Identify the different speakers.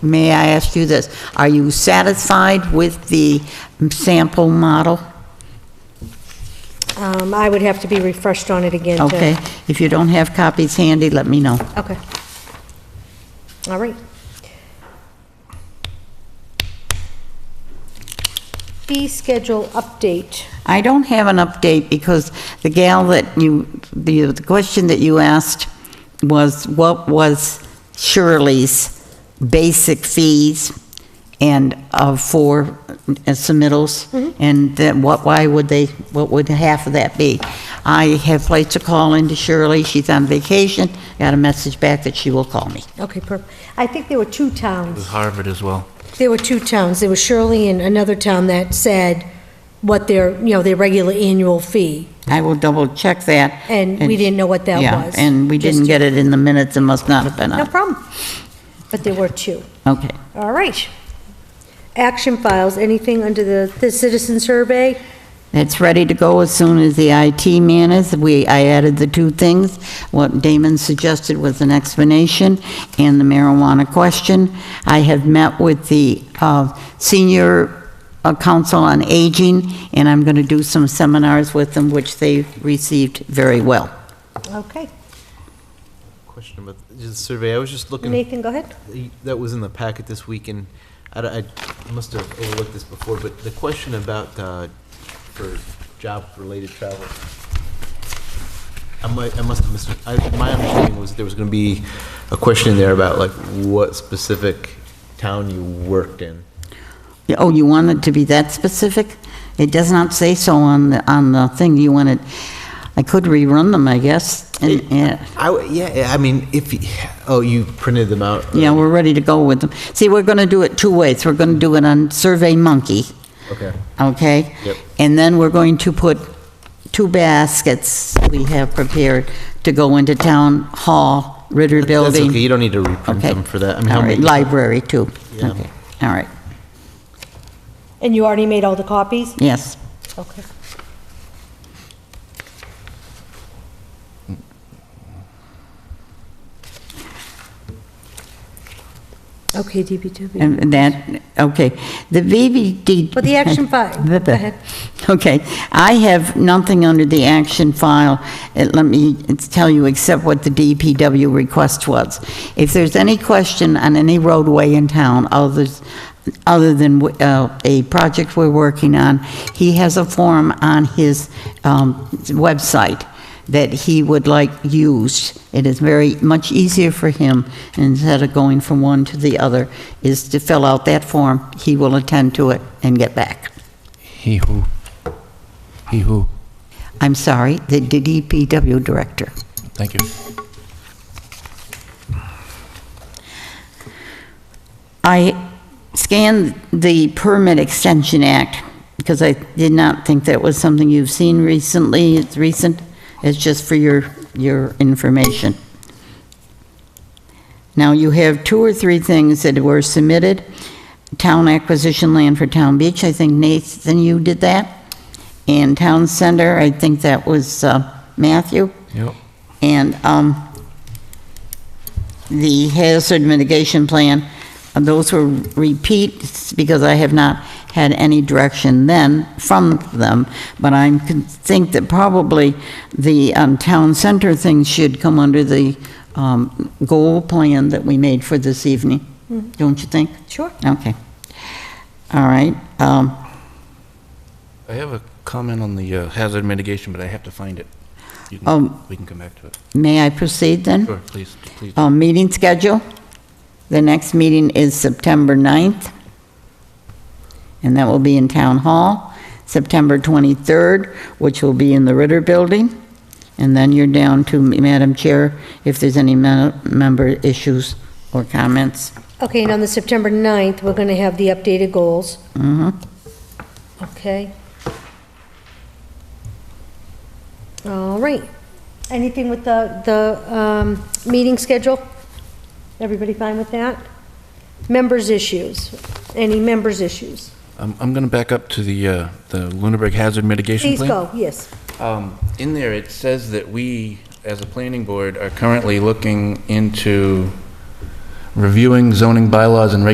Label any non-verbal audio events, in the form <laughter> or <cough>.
Speaker 1: May I ask you this? Are you satisfied with the sample model?
Speaker 2: Um, I would have to be refreshed on it again to...
Speaker 1: Okay, if you don't have copies handy, let me know.
Speaker 2: Okay. All right. Fee schedule update.
Speaker 1: I don't have an update because the gal that you, the, the question that you asked was what was Shirley's basic fees and uh, for submittals?
Speaker 2: Mm-hmm.
Speaker 1: And then what, why would they, what would half of that be? I have placed a call into Shirley, she's on vacation, got a message back that she will call me.
Speaker 2: Okay, per, I think there were two
Speaker 3: With
Speaker 2: towns,
Speaker 3: Harvard as well.
Speaker 2: there were two towns, there was Shirley and another town that said what their, you know, their regular annual fee,
Speaker 1: I will double check that.
Speaker 2: and we didn't know what that
Speaker 1: Yeah,
Speaker 2: was.
Speaker 1: and we
Speaker 2: Just-
Speaker 1: didn't get it in the minutes, it must not have been
Speaker 2: No
Speaker 1: on.
Speaker 2: problem. But there were two.
Speaker 1: Okay.
Speaker 2: All right. Action files, anything under the, the citizen survey?
Speaker 1: It's ready to go as soon as the IT man is. We, I added the two things. What Damon suggested was an explanation and the marijuana question. I have met with the uh, Senior uh, Council on Aging, and I'm going to do some seminars with them, which they received very well.
Speaker 2: Okay.
Speaker 4: Question about the just survey, I was just looking,
Speaker 2: Nathan, go ahead.
Speaker 4: that was in the packet this week, and I don't- I must have overlooked this before, but the question about, uh, for job-related travel, I might, I must have missed, I, my understanding was there was gonna be a question in there about like what specific town you worked in.
Speaker 1: Oh, you want it to be that specific? It does not say so on the, on the thing. You want it, I could rerun them, I guess. And, and-
Speaker 4: I, w- yeah, I mean, if, y- oh, you printed them out?
Speaker 1: Yeah, we're ready to go with them. See, we're going to do it two ways. We're going to do it on Survey Monkey,
Speaker 4: Okay,
Speaker 1: okay?
Speaker 4: Yep.
Speaker 1: And then we're going to put two baskets we have prepared to go into Town Hall, Ritter
Speaker 4: that's okay,
Speaker 1: Building.
Speaker 4: you don't need to reprint
Speaker 1: Okay.
Speaker 4: them for that. I mean, how
Speaker 1: All right,
Speaker 4: many-
Speaker 1: library too.
Speaker 4: Yeah.
Speaker 1: Okay, all right,
Speaker 2: And you already made all the copies?
Speaker 1: yes.
Speaker 2: Okay. Okay, DBW.
Speaker 1: And that, okay, the VVD.
Speaker 2: But the action file,
Speaker 1: <laughs> Blah,
Speaker 2: go
Speaker 1: blah.
Speaker 2: ahead.
Speaker 1: Okay, I have nothing under the action file, Uh, let me tell you, except what the DPW request was. If there's any question on any roadway in town, others, other than uh, a project we're working on, he has a form on his um, website that he would like used. It is very much easier for him, instead of going from one to the other, is to fill out that form, he will attend to it and get back.
Speaker 3: He who. He who.
Speaker 1: I'm sorry, the DPW director.
Speaker 3: Thank you.
Speaker 1: I scanned the Permit Extension Act because I did not think that was something you've seen recently. It's recent. It's just for your, your information. Now, you have two or three things that were submitted. Town acquisition land for Town Beach, I think Nathan, you did that. And Town Center, I think that was uh, Matthew.
Speaker 3: Yep.
Speaker 1: And um, the hazard mitigation plan, uh, those were repeats because I have not had any direction then from them, but I think that probably the um, town center thing should come under the um, goal plan that we made for this evening, don't you think?
Speaker 2: Sure.
Speaker 1: Okay. All right. um,
Speaker 3: I have a comment on the uh, hazard mitigation, but I have to find it. You can-
Speaker 1: Um,
Speaker 3: We can come back to it.
Speaker 1: May I proceed then?
Speaker 3: Sure, please, please.
Speaker 1: Uh, Meeting schedule. The next meeting is September 9th, and that will be in Town Hall. September 23rd, which will be in the Ritter Building. And then you're down to Madam Chair if there's any me- member issues or comments.
Speaker 2: Okay, and on the September 9th, we're going to have the updated goals. Mm-hmm. Okay. All right. Anything with the, the um, meeting schedule? Everybody fine with that? Members' issues? Any members' issues?
Speaker 3: I'm, I'm going to back up to the, uh, the Lunenburg Hazard Mitigation
Speaker 2: Please
Speaker 3: Plan.
Speaker 2: go, yes.
Speaker 3: Um, In there, it says that we, as a planning board, are currently looking into reviewing zoning bylaws and regulations